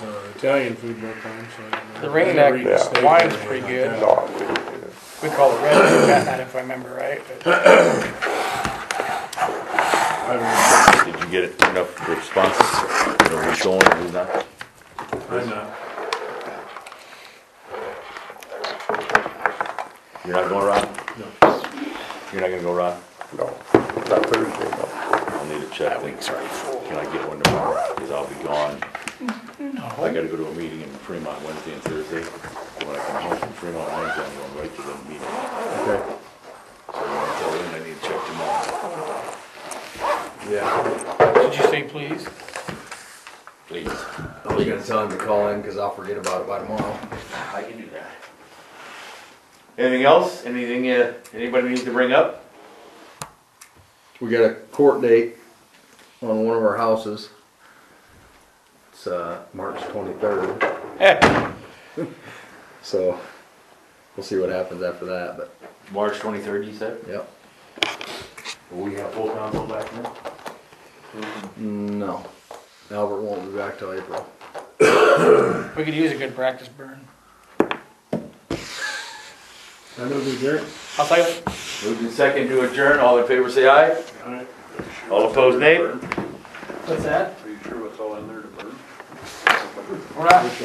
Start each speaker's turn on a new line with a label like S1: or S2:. S1: Uh, Italian food one time, so. I don't know.
S2: The Rain
S1: Never
S2: Act
S1: eaten steak or
S2: wine's
S1: anything
S2: pretty
S1: like
S2: good.
S1: that.
S3: No, we- we-
S2: We call it red root catnip if I remember right. but-
S1: I don't
S4: Did you get enough responses? You know, who's going, and who's not?
S1: know. I'm not.
S4: You're not going, Ron?
S1: No.
S4: You're not gonna go, Ron?
S3: no, not Thursday, no.
S4: I'll need to check. things. Can I get one tomorrow? Cause I'll be gone. I gotta go to a meeting in Fremont Wednesday and Thursday. When I come home from Fremont Wednesday, I'm going right to the meeting.
S1: Okay.
S4: So when I tell them I need to check tomorrow,
S5: Yeah,
S2: Did you say please?
S4: please.
S5: I was gonna tell him to call in, cause I'll forget about it by tomorrow.
S4: I can do that. Anything else? Anything, uh, anybody needs to bring up?
S5: We got a court date on one of our houses. It's, uh, March twenty-third, so we'll see what happens after that, but,
S4: March twenty-third, you said?
S5: yep.
S4: We have full council back then?
S5: No, Albert won't be back till April.
S2: We could use a good practice burn.
S1: I know the jerk.
S2: I'll tell you,
S4: Moved in second to adjourn, all in favor say aye.
S1: All right.
S4: All opposed nay.
S2: what's that?
S6: Are you sure what's all in there to burn?
S2: We're not,